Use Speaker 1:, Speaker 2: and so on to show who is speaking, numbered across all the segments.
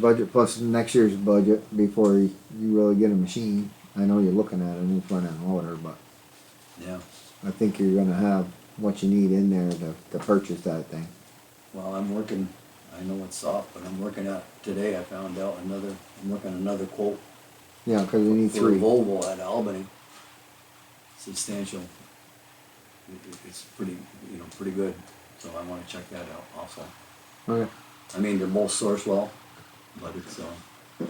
Speaker 1: budget plus next year's budget before you really get a machine. I know you're looking at a new front end loader, but
Speaker 2: Yeah,
Speaker 1: I think you're gonna have what you need in there to, to purchase that thing.
Speaker 2: well, I'm working, I know it's soft, but I'm working out, today I found out another, I'm working another quote
Speaker 1: Yeah, cause you need
Speaker 2: for a
Speaker 1: three.
Speaker 2: Volvo at Albany. Substantial. It- it- It's pretty, you know, pretty good, so I wanna check that out also.
Speaker 1: Okay,
Speaker 2: I mean, they're both Sourcewell, but it's, uh,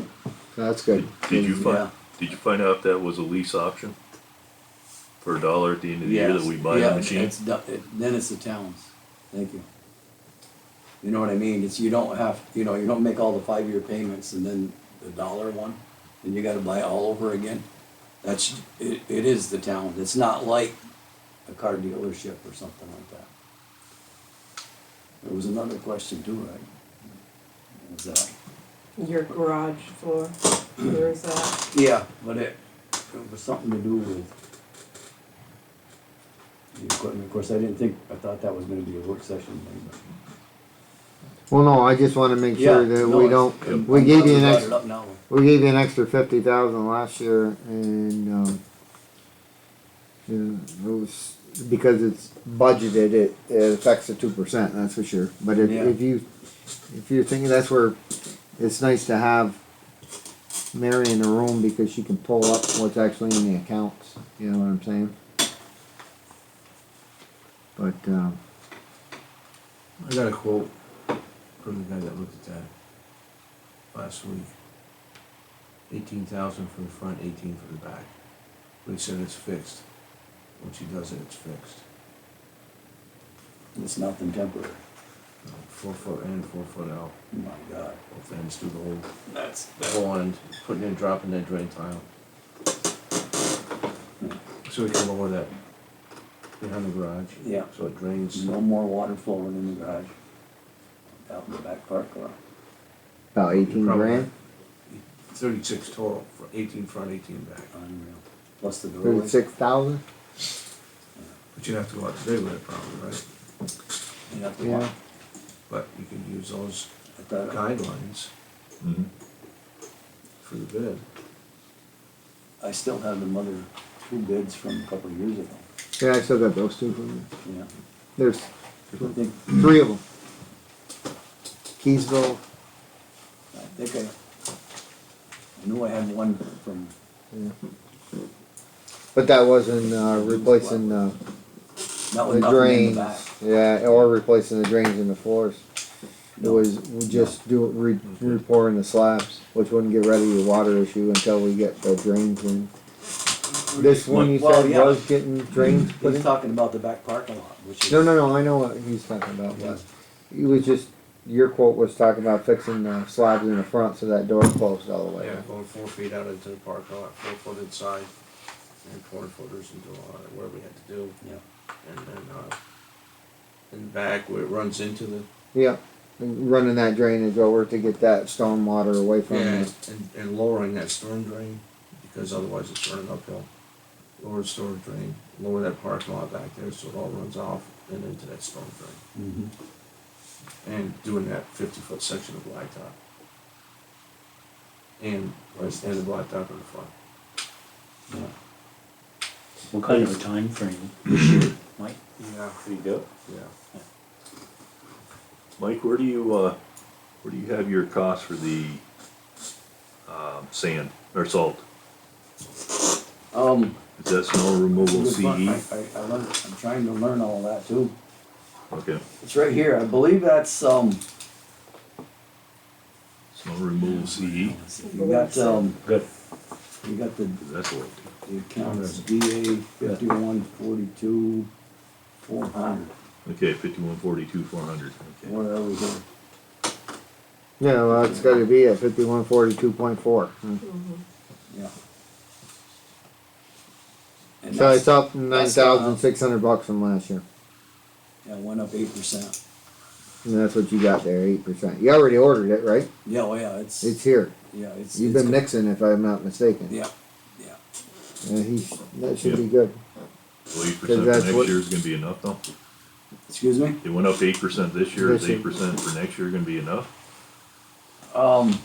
Speaker 1: that's good.
Speaker 3: Did you
Speaker 2: Yeah.
Speaker 3: find, did you find out if that was a lease option? For a dollar at the end of the year that
Speaker 2: Yes.
Speaker 3: we buy
Speaker 2: Yeah,
Speaker 3: the machine?
Speaker 2: it's do- it- Then it's the towns, thank you. You know what I mean, it's, you don't have, you know, you don't make all the five-year payments and then the dollar one, and you gotta buy all over again. That's, it, it is the town, it's not like a car dealership or something like that. There was another question too, right? Was that?
Speaker 4: Your garage floor, where is that?
Speaker 2: Yeah, but it, it was something to do with. the equipment. Of course, I didn't think, I thought that was gonna be a work session thing, but.
Speaker 1: Well, no, I just wanna make
Speaker 2: Yeah,
Speaker 1: sure that
Speaker 2: no,
Speaker 1: we
Speaker 2: it's-
Speaker 1: don't,
Speaker 2: I'm-
Speaker 1: we
Speaker 2: I'm
Speaker 1: gave
Speaker 2: glad
Speaker 1: you an
Speaker 2: brought
Speaker 1: extra.
Speaker 2: it up now.
Speaker 1: We gave you an extra fifty thousand last year and, um, yeah, it was, because it's budgeted, it, it affects the two percent, that's for sure. But if,
Speaker 2: Yeah.
Speaker 1: if you, if you're thinking that's where, it's nice to have Mary in the room because she can pull up what's actually in the accounts, you know what I'm saying? But, um,
Speaker 5: I got a quote from the guy that looked at that last week. Eighteen thousand for the front, eighteen for the back. But he said it's fixed. Once he does it, it's fixed.
Speaker 2: It's nothing temporary.
Speaker 5: You know, Four foot in, four foot out,
Speaker 2: Oh My God,
Speaker 5: both ends through the whole,
Speaker 2: that's,
Speaker 5: the
Speaker 2: that-
Speaker 5: whole end, putting in, dropping that drain tile. So we can lower that behind the garage.
Speaker 2: Yeah. Mm-hmm.
Speaker 5: So it drains.
Speaker 2: no more water flowing in the garage. Out in the back parking lot.
Speaker 1: about eighteen
Speaker 5: Probably.
Speaker 1: grand,
Speaker 5: Thirty-six total, for eighteen front, eighteen back.
Speaker 2: unreal. Plus the doorway.
Speaker 1: thirty-six thousand?
Speaker 5: But you'd have to go out today with it probably, right?
Speaker 2: You have to
Speaker 1: Yeah.
Speaker 2: walk.
Speaker 5: But you could use those
Speaker 2: I thought,
Speaker 5: guidelines
Speaker 3: Mhm.
Speaker 5: for the bid.
Speaker 2: I still have the mother, two bids from a couple of years ago,
Speaker 1: Yeah, I still got those two from you.
Speaker 2: yeah.
Speaker 1: There's
Speaker 2: I think,
Speaker 1: Three of them. Keysville,
Speaker 2: I think I, I knew I had one from
Speaker 1: but that wasn't uh, replacing uh,
Speaker 2: That was
Speaker 1: the
Speaker 2: nothing in
Speaker 1: drains.
Speaker 2: the back.
Speaker 1: Yeah, or replacing the drains in the floors. It
Speaker 2: No.
Speaker 1: was we just do re, repouring the slabs, which wouldn't get rid of your water issue until we get the drains in. This one you
Speaker 2: Well,
Speaker 1: said
Speaker 2: yeah.
Speaker 1: was getting drains put
Speaker 2: He's
Speaker 1: in?
Speaker 2: talking about the back parking lot, which is.
Speaker 1: No, no, no, I know what he's talking about, but it was just, your quote was talking about fixing the slabs in the front so that door closed all the way.
Speaker 5: Yeah, going four feet out into the parking lot, four foot inside, and four footers into all that, whatever we had to do.
Speaker 2: Yeah.
Speaker 5: And then, uh, in the back where it runs into the,
Speaker 1: Yeah, and running that drainage over to get that storm water away from
Speaker 5: yeah,
Speaker 1: it.
Speaker 5: and, and lowering that storm drain, because otherwise it's running uphill. Lower the storm drain, lower that parking lot back there, so it all runs off and into that storm drain.
Speaker 2: Mhm.
Speaker 5: And doing that fifty foot section of blacktop. And, and the blacktop in the front.
Speaker 2: Yeah.
Speaker 6: What kind of a time frame this year, Mike?
Speaker 5: Yeah,
Speaker 6: There you go.
Speaker 5: yeah.
Speaker 3: Mike, where do you, uh, where do you have your costs for the, um, sand or salt?
Speaker 2: Um.
Speaker 3: Is that snow removal E?
Speaker 2: good fun.
Speaker 3: CE?
Speaker 2: I, I, I learned, I'm trying to learn all that too.
Speaker 3: Okay,
Speaker 2: It's right here, I believe that's, um,
Speaker 3: snow removal E? CE,
Speaker 2: you got, um,
Speaker 6: Good.
Speaker 2: you got the,
Speaker 3: that's what,
Speaker 2: the accounts, DA fifty-one forty-two, four hundred,
Speaker 3: okay, fifty-one forty-two, four hundred, okay.
Speaker 2: where are we here?
Speaker 1: Yeah, well, it's gotta be at fifty-one forty-two point four.
Speaker 2: Yeah. And
Speaker 1: So
Speaker 2: that's,
Speaker 1: it's up nine
Speaker 2: that's uh, gone up.
Speaker 1: thousand six hundred bucks from last year.
Speaker 2: that went up eight percent.
Speaker 1: And that's what you got there, eight percent. You already ordered it, right?
Speaker 2: Yeah, oh yeah, it's,
Speaker 1: It's here.
Speaker 2: yeah, it's.
Speaker 1: You've
Speaker 2: it's
Speaker 1: been
Speaker 2: go-
Speaker 1: mixing, if I'm not mistaken.
Speaker 2: Yeah,
Speaker 1: Yeah, he's, that should be good.
Speaker 3: So eight
Speaker 1: Cause
Speaker 3: percent
Speaker 1: that's
Speaker 3: for next
Speaker 1: what-
Speaker 3: year is gonna be enough though?
Speaker 2: excuse me?
Speaker 3: It went up eight percent this year, is
Speaker 1: This year.
Speaker 3: eight percent for next year gonna be enough?
Speaker 2: Um,